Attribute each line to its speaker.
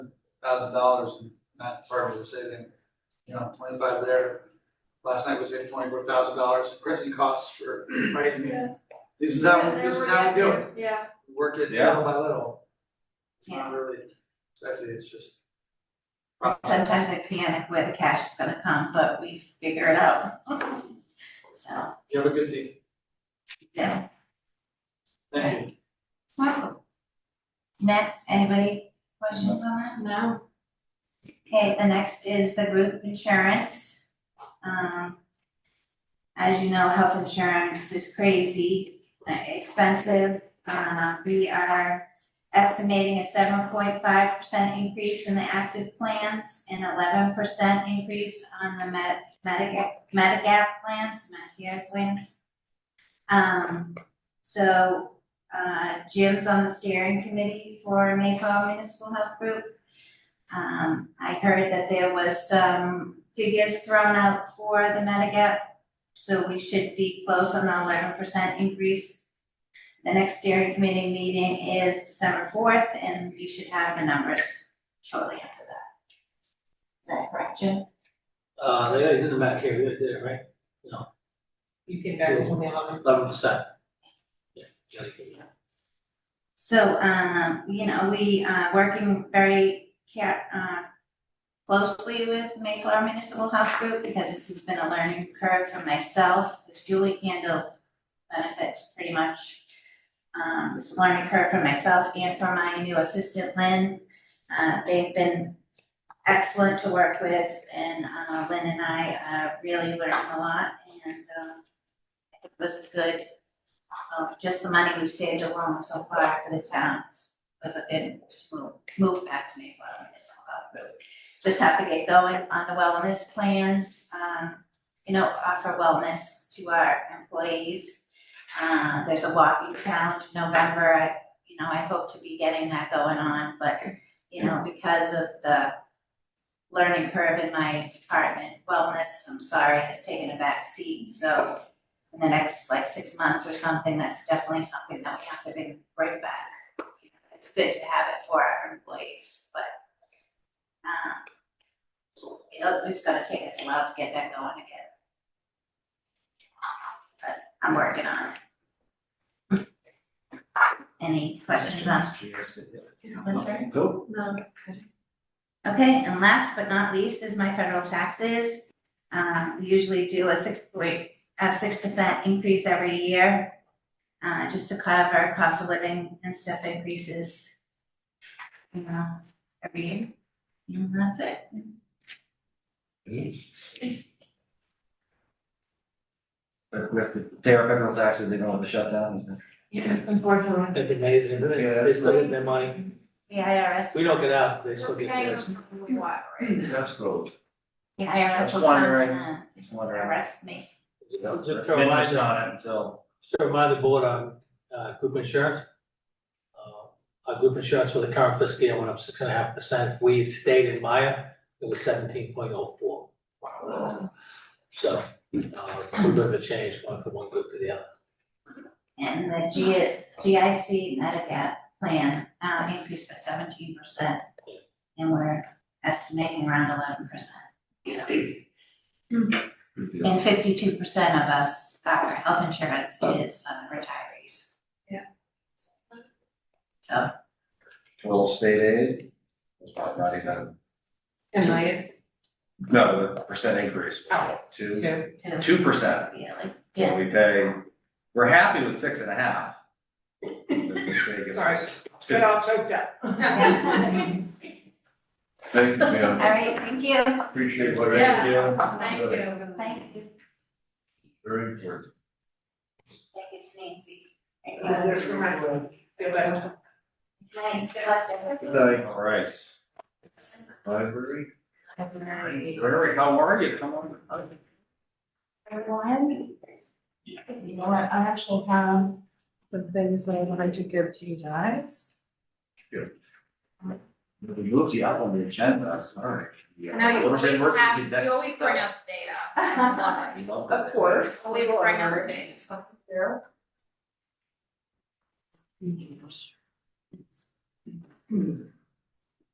Speaker 1: thousand dollars in that department was saving, you know, twenty-five there. Last night we saved twenty-four thousand dollars in printing costs for, right? I mean,
Speaker 2: Yeah.
Speaker 1: This is how, this is how we do it,
Speaker 2: Yeah,
Speaker 1: work it
Speaker 3: Yeah.
Speaker 1: little by little. It's not really sexy, it's just.
Speaker 4: Sometimes I panic where the cash is gonna come, but we figure it out. So,
Speaker 1: You have a good team,
Speaker 4: yeah,
Speaker 1: thank you.
Speaker 4: wonderful. Next, anybody questions on that?
Speaker 2: no,
Speaker 4: Okay, the next is the group insurance. Um, as you know, health insurance is crazy uh, expensive. Uh, we are estimating a seven point five percent increase in the active plans and eleven percent increase on the Med- Medigap, Medigap plans, Medicare plans. Um, so, uh, Jim's on the steering committee for Mayflower Municipal Health Group. Um, I heard that there was some figures thrown out for the Medigap, so we should be close on the eleven percent increase. The next steering committee meeting is December fourth, and we should have the numbers shortly after that. Is that correct, Jim?
Speaker 5: Uh, they already did the back here, they did it, right? No,
Speaker 6: You came back with the eleven.
Speaker 5: eleven percent. Yeah, gotta give you that.
Speaker 4: So, um, you know, we are working very care, uh, closely with Mayflower Municipal Health Group because this has been a learning curve for myself, because Julie handled benefits pretty much. Um, this learning curve for myself and for my new assistant Lynn. Uh, they've been excellent to work with and, uh, Lynn and I, uh, really learned a lot and, um, it was good of just the money we've saved alone so far for the towns was a good move, move back to Mayflower Municipal Health Group. Just have to get going on the wellness plans, um, you know, offer wellness to our employees. Uh, there's a walking challenge in November, I, you know, I hope to be getting that going on, but, you know, because of the learning curve in my department, wellness, I'm sorry, has taken a back seat, so in the next like six months or something, that's definitely something that we have to bring, bring back. It's good to have it for our employees, but, um, you know, it's gonna take us a while to get that going again. But I'm working on it. Any questions on Winter?
Speaker 3: Go.
Speaker 2: no.
Speaker 4: Okay, and last but not least is my federal taxes. Um, we usually do a six point, a six percent increase every year, uh, just to cover cost of living and stuff increases. You know, every year. And that's it.
Speaker 3: But we have to pay our federal taxes, they don't have to shut down, isn't it?
Speaker 6: Yeah, unfortunately.
Speaker 5: That'd be amazing, isn't
Speaker 3: Yeah.
Speaker 5: it? They still get their money,
Speaker 4: The IRS.
Speaker 5: we don't get out, they still
Speaker 2: We're
Speaker 5: get
Speaker 2: paying
Speaker 5: theirs.
Speaker 2: them for what, right?
Speaker 3: That's cool.
Speaker 4: The
Speaker 3: I
Speaker 4: IRS
Speaker 3: was
Speaker 4: will
Speaker 3: wondering.
Speaker 4: come,
Speaker 3: Just
Speaker 4: uh,
Speaker 3: wondering.
Speaker 4: arrest me.
Speaker 3: Yep,
Speaker 5: Just
Speaker 3: it's
Speaker 5: to
Speaker 3: been
Speaker 5: remind,
Speaker 3: missed
Speaker 5: just
Speaker 3: on it until,
Speaker 5: to remind the board on, uh, group insurance. Uh, Our group insurance for the current fiscal year went up six and a half percent, if we had stayed in Maya, it was seventeen point oh four. So, uh, a little bit of a change, going from one group to the other.
Speaker 4: And the G, GIC Medigap plan, um, increased by seventeen percent. And we're estimating around eleven percent, so. And fifty-two percent of us, our health insurance is uh, retirees.
Speaker 2: Yeah.
Speaker 4: So,
Speaker 3: little state aid. It's probably not even,
Speaker 6: And I,
Speaker 3: no, the percent increase,
Speaker 6: Oh.
Speaker 3: two,
Speaker 6: too.
Speaker 4: to the
Speaker 3: two percent.
Speaker 4: yearly,
Speaker 3: So
Speaker 4: yeah,
Speaker 3: we pay, we're happy with six and a half. The mistake is
Speaker 6: Sorry.
Speaker 3: two.
Speaker 6: Get all choked up.
Speaker 7: Thank you,
Speaker 4: all
Speaker 7: ma'am.
Speaker 4: right, thank you,
Speaker 7: Appreciate what
Speaker 2: Yeah.
Speaker 7: you do.
Speaker 2: Thank you.
Speaker 4: thank you,
Speaker 7: Very important.
Speaker 4: thank you to Nancy. Thank you.
Speaker 6: Because there's reminds me, feel better.
Speaker 4: Hi, good luck, everybody.
Speaker 3: All right. Library.
Speaker 2: Have a nice-
Speaker 3: Library, how are you? Come on. hi.
Speaker 6: Everyone?
Speaker 3: Yeah.
Speaker 6: You know what, I actually have some things that I wanted to give to you guys.
Speaker 3: We moved you up on the agenda, sorry.
Speaker 2: I know you
Speaker 3: Little bit
Speaker 2: always
Speaker 3: worse than
Speaker 2: have,
Speaker 3: that's-
Speaker 2: you always bring us data. I love
Speaker 3: We love
Speaker 6: Of
Speaker 3: that.
Speaker 6: course.
Speaker 2: it. Always bring us things.
Speaker 6: There.